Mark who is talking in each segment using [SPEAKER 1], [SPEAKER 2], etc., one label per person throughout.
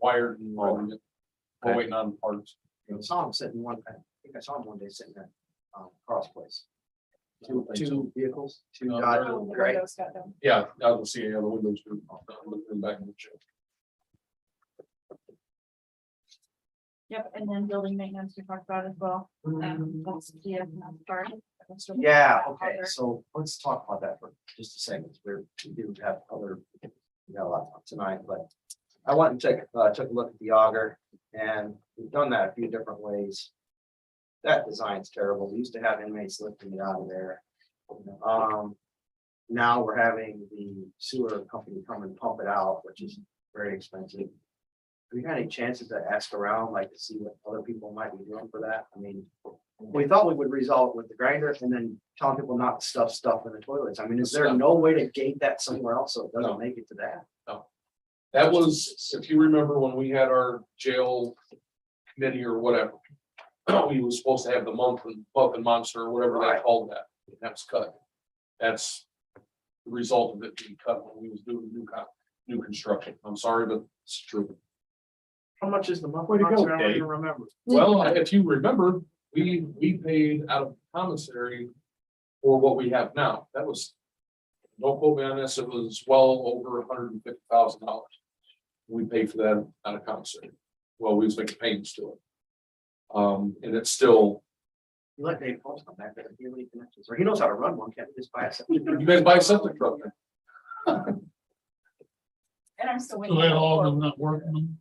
[SPEAKER 1] wired and running it. We're
[SPEAKER 2] Okay.
[SPEAKER 1] waiting on parts.
[SPEAKER 3] I saw him sitting one, I think I saw him one day sitting at, um, Carl's place. Two, two vehicles, two
[SPEAKER 1] No,
[SPEAKER 3] Dodge,
[SPEAKER 4] Oh, the
[SPEAKER 3] gray.
[SPEAKER 4] windows got them.
[SPEAKER 1] Yeah, I don't see any other windows. to- I'm looking back in the check.
[SPEAKER 4] Yep, and then building maintenance we talked about as well. Um, that's the, uh, part.
[SPEAKER 3] Yeah, okay, so let's talk about that for just a second, we're, we do have other, we got a lot tonight, but. I went and took, uh, took a look at the auger, and we've done that a few different ways. That design's terrible, we used to have inmates lifting it out of there. Um, now we're having the sewer company come and pump it out, which is very expensive. Have you had any chances to ask around, like to see what other people might be doing for that? I mean, we thought we would resolve it with the grinder and then tell people not to stuff stuff in the toilets. I mean, is there no way to gate that somewhere else so it
[SPEAKER 1] No.
[SPEAKER 3] doesn't make it to that?
[SPEAKER 1] That was, if you remember when we had our jail committee or whatever. We was supposed to have the month and buff and monster or whatever they
[SPEAKER 3] Right.
[SPEAKER 1] called that. and That's cut. That's the result of it being cut when we was doing new con, new construction. I'm sorry, but it's true.
[SPEAKER 3] How much is the month?
[SPEAKER 1] Way to go,
[SPEAKER 3] I don't
[SPEAKER 1] Dave.
[SPEAKER 3] even remember.
[SPEAKER 1] Well, if you remember, we, we paid out of commissary for what we have now. That was, don't quote me on this, it was well over hundred and fifty thousand dollars. We paid for that out of commissary. Well, we was making payments to it. Um, and it's still,
[SPEAKER 3] You let Dave Paul come back there. He really connections, or he knows how to run one. Can't he just buy a septic
[SPEAKER 1] you
[SPEAKER 3] tank?
[SPEAKER 1] guys buy something from it.
[SPEAKER 4] And I'm still waiting.
[SPEAKER 5] So that all
[SPEAKER 4] for-
[SPEAKER 5] of them not working?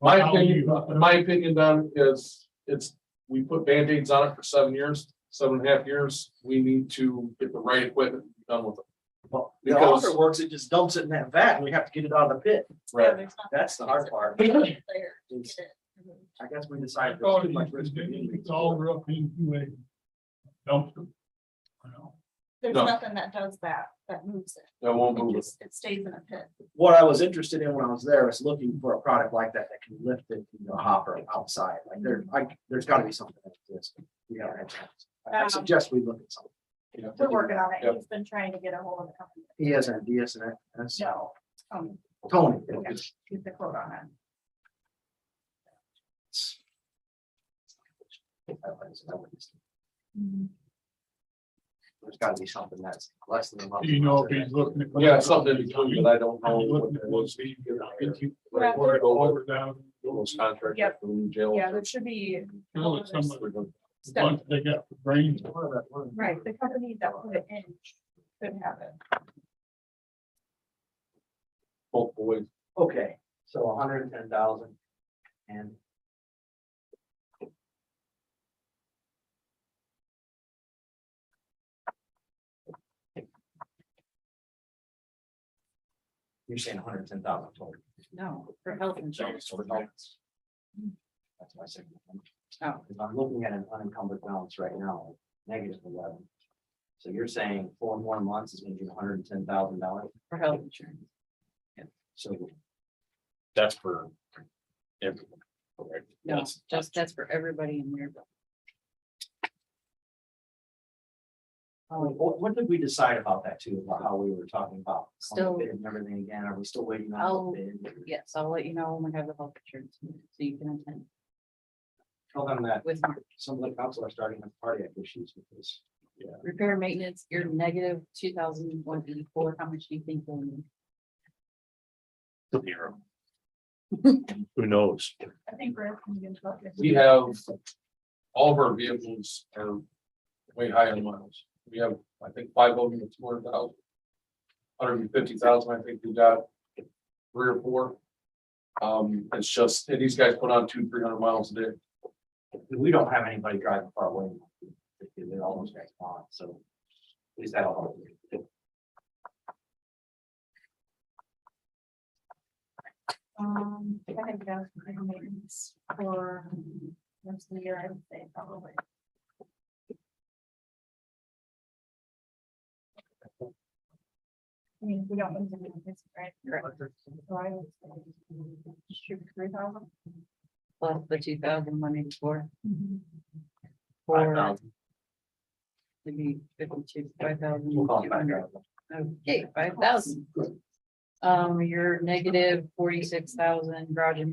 [SPEAKER 1] My
[SPEAKER 5] How
[SPEAKER 1] opinion,
[SPEAKER 5] you-
[SPEAKER 1] in my opinion, Don, is it's, we put Band-Aids on it for seven years, seven and a half years. We need to get the right equipment and be done with it.
[SPEAKER 3] Well, The
[SPEAKER 1] Because-
[SPEAKER 3] auger works, it just dumps it in that vat and we have to get it out of the pit.
[SPEAKER 4] Yeah, there's not
[SPEAKER 3] That's the hard part.
[SPEAKER 4] there to
[SPEAKER 3] is
[SPEAKER 4] get it. Mhm.
[SPEAKER 3] I guess we
[SPEAKER 5] I
[SPEAKER 3] decided. there's
[SPEAKER 5] thought
[SPEAKER 3] too
[SPEAKER 5] it
[SPEAKER 3] much
[SPEAKER 5] was,
[SPEAKER 3] risk to the inmates.
[SPEAKER 5] it's all up into a dumpster. I know.
[SPEAKER 4] There's
[SPEAKER 1] No.
[SPEAKER 4] nothing that does that, that moves it.
[SPEAKER 1] That won't
[SPEAKER 4] It
[SPEAKER 1] move it.
[SPEAKER 4] just, it stays in a pit.
[SPEAKER 3] What I was interested in when I was there was looking for a product like that that can lift it from the hopper outside. Like there, I, there's gotta be something that exists. We haven't had time. I
[SPEAKER 4] Um,
[SPEAKER 3] suggest we look at something. you know, to
[SPEAKER 4] We're
[SPEAKER 3] do
[SPEAKER 4] working
[SPEAKER 3] that.
[SPEAKER 4] on it.
[SPEAKER 1] Yep.
[SPEAKER 4] He's been trying to get a hold of the company.
[SPEAKER 3] He has an idea, and that's
[SPEAKER 4] No, um,
[SPEAKER 3] Tony.
[SPEAKER 4] keep the quote on it.
[SPEAKER 3] There's
[SPEAKER 4] Mhm.
[SPEAKER 3] gotta be something that's less than. a month.
[SPEAKER 5] Do you know if he's looking? at-
[SPEAKER 1] Yeah, something in between, but I don't know what
[SPEAKER 5] Looking
[SPEAKER 1] that
[SPEAKER 5] at
[SPEAKER 1] was.
[SPEAKER 5] what's being, if you
[SPEAKER 1] Right,
[SPEAKER 5] pour
[SPEAKER 1] we're
[SPEAKER 5] it
[SPEAKER 1] over
[SPEAKER 5] over down,
[SPEAKER 1] those contracts.
[SPEAKER 4] Yep.
[SPEAKER 1] in jail.
[SPEAKER 4] Yeah, there should be.
[SPEAKER 5] you know, it's some of
[SPEAKER 1] We're gonna-
[SPEAKER 5] the bunch they got for brains.
[SPEAKER 4] Right, the company that put it in could have it.
[SPEAKER 1] both ways.
[SPEAKER 3] Okay, so hundred and ten thousand and. You're saying hundred and ten thousand total.
[SPEAKER 4] No, for health insurance.
[SPEAKER 3] So we're not- That's my second one. Because I'm looking at an unencumbered balance right now, negative eleven. So you're saying four more months is gonna be hundred and ten thousand dollars,
[SPEAKER 4] For health insurance.
[SPEAKER 3] so
[SPEAKER 2] That's for everyone. correct?
[SPEAKER 6] No,
[SPEAKER 2] That's-
[SPEAKER 6] just, that's for everybody in there.
[SPEAKER 3] Oh, What, what did we decide about that too, about how we were talking about?
[SPEAKER 6] Still-
[SPEAKER 3] bid And everything again, are we still waiting on
[SPEAKER 6] I'll-
[SPEAKER 3] the bid?
[SPEAKER 6] Yes, I'll let you know when we have the health insurance, meeting, so you can attend
[SPEAKER 3] Tell them that
[SPEAKER 6] with Mark.
[SPEAKER 3] some of the council are starting to have cardiac issues with this.
[SPEAKER 6] Repair maintenance, you're negative two thousand one eighty-four, how much do you think we'll need?
[SPEAKER 2] Zero. Who knows?
[SPEAKER 4] I think we're. gonna get about this.
[SPEAKER 1] We have, all of our vehicles are way high on miles. We have, I think, five of them, it's more than thousand. Hundred and fifty thousand, I think we got three or four. Um, it's just, and these guys put on two, three hundred miles a day.
[SPEAKER 3] We don't have anybody driving far away. They're almost next on, so. At least that'll help.
[SPEAKER 4] Um, I think that's pretty maintenance for most of the year, I would say probably. I mean, we don't need to do this, right? So I would say, Shoot, three thousand.
[SPEAKER 6] Plus the two thousand one eighty-four.
[SPEAKER 3] Five
[SPEAKER 6] Or
[SPEAKER 3] thousand,
[SPEAKER 6] maybe fifty-two, five thousand.
[SPEAKER 3] we'll call it five thousand.
[SPEAKER 6] Okay, five thousand. Um, you're negative forty-six thousand, garage and